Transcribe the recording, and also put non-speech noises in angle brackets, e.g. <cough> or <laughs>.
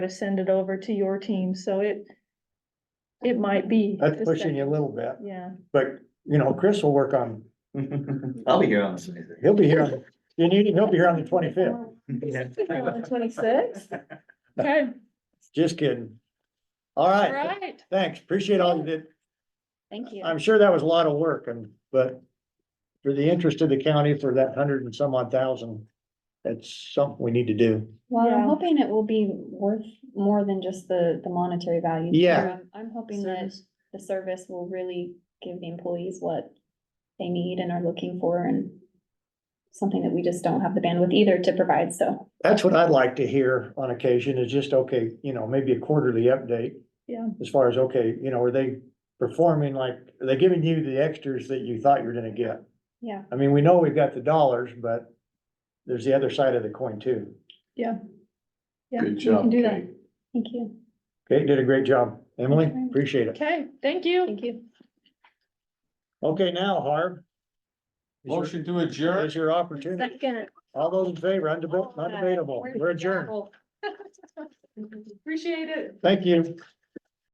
to send it over to your team, so it, it might be. That's pushing you a little bit, Yeah, but you know, Chris will work on, I'll be here on the twenty he'll be here, on- you need, he'll be here on the twenty-fifth, <laughs> fifth. twenty-sixth, okay, just kidding. All all right, right, thanks, appreciate all you did, Thank you. I'm sure that was a lot of work and, but for the interest of the county for that hundred and some odd thousand, that's something we need to do. Well, Yeah. I'm hoping it will be worth more than just the, the monetary value. Yeah. Um, I'm hoping that Service. the service will really give the employees what they need and are looking for and something that we just don't have the bandwidth either to provide, so. That's what I'd like to hear on occasion is just, okay, you know, maybe a quarterly update. Yeah. As far as, okay, you know, are they performing like, are they giving you the extras that you thought you were gonna get? Yeah. I mean, we know we've got the dollars, but there's the other side of the coin too. yeah, Good we can do that. Thank you. Okay, did a great job. Emily, Thank you. appreciate it. Okay, thank you. Thank you. Okay, now Harv. is your- Motion to adjourn. Is your opportunity. Second. All those in favor, undeb- undebatable, we're adjourned. Appreciate it. Thank you.